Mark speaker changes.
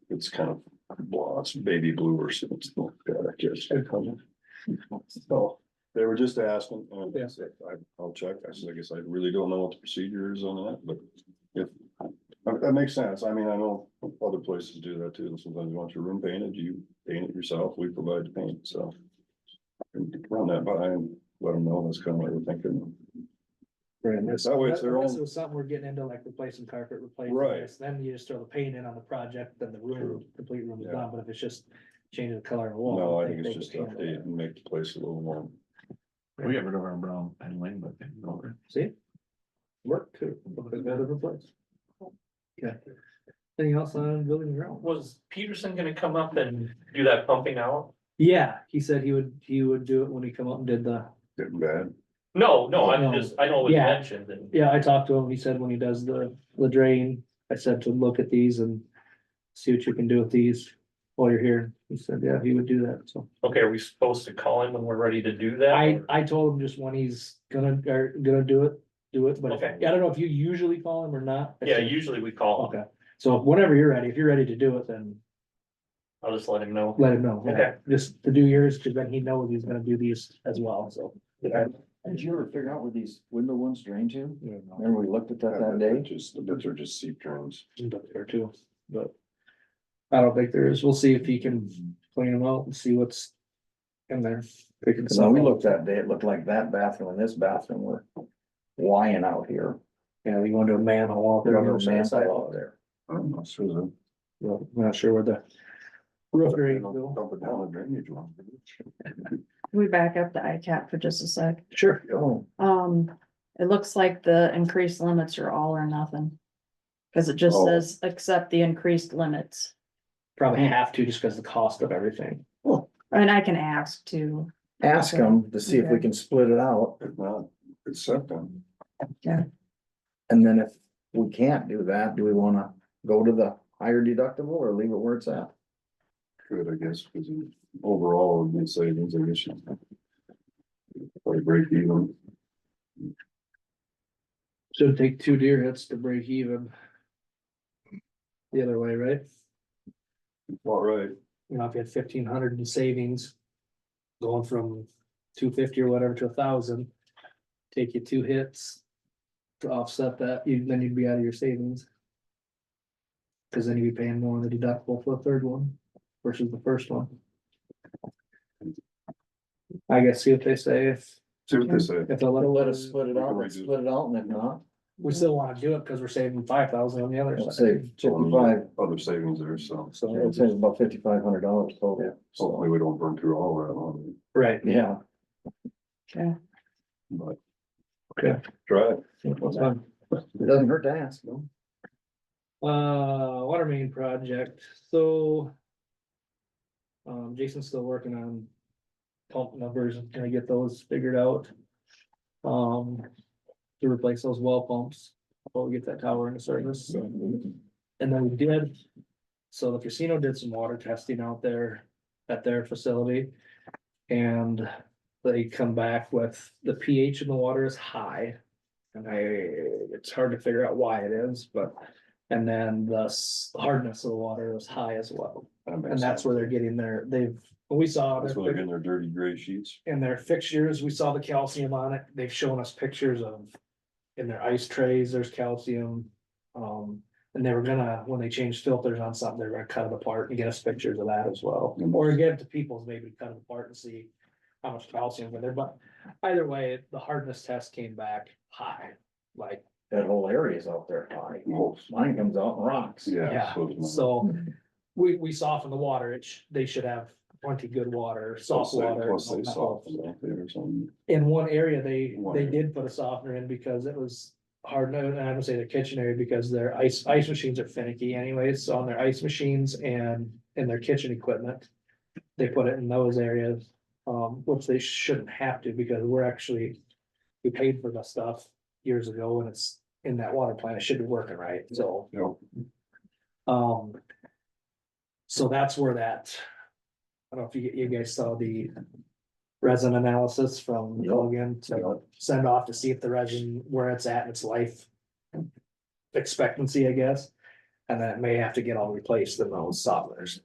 Speaker 1: it's kind of, well, it's baby blue or something. like that, I guess. So they were just asking, and I said, I, I'll check. I said, I guess I really don't know what the procedure is on that, but if. That, that makes sense. I mean, I know other places do that too. and Sometimes you want your room painted, you paint it yourself. We provide the paint, so. and Run that by and let them know that's kind of what we're thinking.
Speaker 2: Right.
Speaker 1: That way it's their
Speaker 2: This
Speaker 1: own,
Speaker 2: is something we're getting into, like replacing carpet, replacing
Speaker 1: Right.
Speaker 2: this, then you just throw the paint in on the project, then the room,
Speaker 1: True.
Speaker 2: complete room is
Speaker 1: Yeah.
Speaker 2: done, but if it's just changing the color of the wall.
Speaker 1: no, I
Speaker 2: they-
Speaker 1: think it's
Speaker 2: they
Speaker 1: just
Speaker 2: can handle
Speaker 1: update
Speaker 2: that.
Speaker 1: and make the place a little warm.
Speaker 3: We got rid of our brown and lane, but they don't.
Speaker 2: See,
Speaker 1: Work too.
Speaker 2: okay. Anything else on building and ground?
Speaker 4: Was Peterson gonna come up and do that pumping out?
Speaker 2: Yeah, he said he would, he would do it when he come up and did the,
Speaker 1: Getting bad.
Speaker 4: No, no,
Speaker 2: No.
Speaker 4: I'm just, I know it was
Speaker 2: Yeah.
Speaker 4: mentioned and
Speaker 2: yeah, I talked to him, he said when he does the, the drain, I said to him, look at these and. See what you can do with these while you're here, he said, yeah, he would do that, so.
Speaker 4: okay, are we supposed to call him when we're ready to do that?
Speaker 2: I,
Speaker 4: or-
Speaker 2: I told him just when he's gonna, or gonna do it, do it, but if-
Speaker 4: Okay.
Speaker 2: I don't know if you usually call him or not.
Speaker 4: Yeah, usually we call him.
Speaker 2: Okay, so whenever you're ready, if you're ready to do it, then
Speaker 4: I'll just let him know.
Speaker 2: let him know. yeah.
Speaker 4: Okay.
Speaker 2: Just to do yours, cause then he knows he's gonna do these as well, so.
Speaker 5: Did you ever figure out where these window ones drain to?
Speaker 2: Yeah.
Speaker 5: Remember we looked at that that
Speaker 1: They're
Speaker 5: day?
Speaker 1: Just, the bits are just seep drains.
Speaker 2: There too, but. I don't think there is, we'll see if he can clean them out and see what's in there. Pick it
Speaker 5: So
Speaker 2: up.
Speaker 5: we looked that day, it looked like that bathroom and this bathroom were lying out here.
Speaker 2: Yeah, you want to do a manhole walk.
Speaker 5: There was no man side out there.
Speaker 1: I'm not sure the.
Speaker 2: Well, I'm Not sure where the. Roof drain
Speaker 1: Dump
Speaker 2: go.
Speaker 1: it down the drainage line.
Speaker 6: Can we back up the ICAP for just a sec?
Speaker 2: Sure.
Speaker 5: Oh,
Speaker 6: Um, it looks like the increased limits are all or nothing. Cause it just
Speaker 1: Oh.
Speaker 6: says accept the increased limits.
Speaker 2: Probably have to just because the cost of everything.
Speaker 6: And I can ask too.
Speaker 5: ask them to see if we
Speaker 6: Okay.
Speaker 5: can split it out.
Speaker 1: If not, accept them.
Speaker 5: And then if we can't do that, do we wanna go to the higher deductible or leave it where it's at?
Speaker 1: Good, I guess, because overall, it would be savings, I guess. Or break even.
Speaker 2: So it'd take two deer hits to break even. The other way, right?
Speaker 1: All right.
Speaker 2: You know, if you had fifteen hundred in savings. Going from two fifty or whatever to a thousand. Take you two hits. To offset that, you, then you'd be out of your savings. Cause then you'd be paying more on the deductible for the third one versus the first one. I guess see what they say if,
Speaker 1: See what they say.
Speaker 2: if they'll let.
Speaker 5: They'll let us split it out, let's
Speaker 1: Reduce.
Speaker 5: split it out and if not,
Speaker 2: We still wanna do it because we're saving five thousand on the other
Speaker 5: we'll
Speaker 2: side.
Speaker 5: save fifty-five,
Speaker 1: Other savings there, so
Speaker 2: So,
Speaker 5: it saves about fifty-five hundred dollars total. So,
Speaker 1: hopefully we don't burn through all that on,
Speaker 2: right,
Speaker 5: yeah.
Speaker 6: Okay.
Speaker 1: it, but.
Speaker 2: Okay.
Speaker 1: Try it.
Speaker 5: It doesn't hurt to ask, no?
Speaker 2: uh, water main project, so. Um, Jason's still working on pump numbers, gonna get those figured out. Um, to replace those wall pumps, before we get that tower into service, And then we did, so the casino did some water testing out there at their facility. And they come back with the pH in the water is high. And I, it's hard to figure out why it is, but, and then the s- hardness of the water is high as well.
Speaker 1: That makes
Speaker 2: And that's
Speaker 1: sense.
Speaker 2: where they're getting their, they've, we saw.
Speaker 1: That's
Speaker 2: their
Speaker 1: where they're getting their dirty gray sheets.
Speaker 2: in their fixtures, we saw the calcium on it, they've shown us pictures of. In their ice trays, there's calcium, um, and they were gonna, when they changed filters on something, they were gonna cut it apart and get us pictures of that as well.
Speaker 1: Mhm.
Speaker 2: Or get it to people's maybe cut it apart and see how much calcium in there, but either way, the hardness test came back high, like,
Speaker 5: That whole area is out there high.
Speaker 1: Well,
Speaker 5: Mine comes out and rocks.
Speaker 1: Yeah.
Speaker 2: yeah,
Speaker 1: so it's not-
Speaker 2: so. We, we soften the water, it sh- they should have plenty good water, soft
Speaker 1: Plus they-
Speaker 2: water.
Speaker 1: Plus they
Speaker 2: not-
Speaker 1: soften it or something.
Speaker 2: in one area, they,
Speaker 1: One
Speaker 2: they
Speaker 1: area.
Speaker 2: did put a softener in because it was hard, no, and I don't say the kitchen area because their ice, ice machines are finicky anyways, so on their ice machines and, and their kitchen equipment. They put it in those areas, um, which they shouldn't have to because we're actually, we paid for the stuff years ago and it's in that water plant, it should be working right, so.
Speaker 1: You know,
Speaker 2: Um. So that's where that. I don't know if you, you guys saw the resin analysis from
Speaker 5: Yeah.
Speaker 2: Logan to send off to see if the resin, where it's at in its life. Expectancy, I guess. And then it may have to get all replaced in those softeners.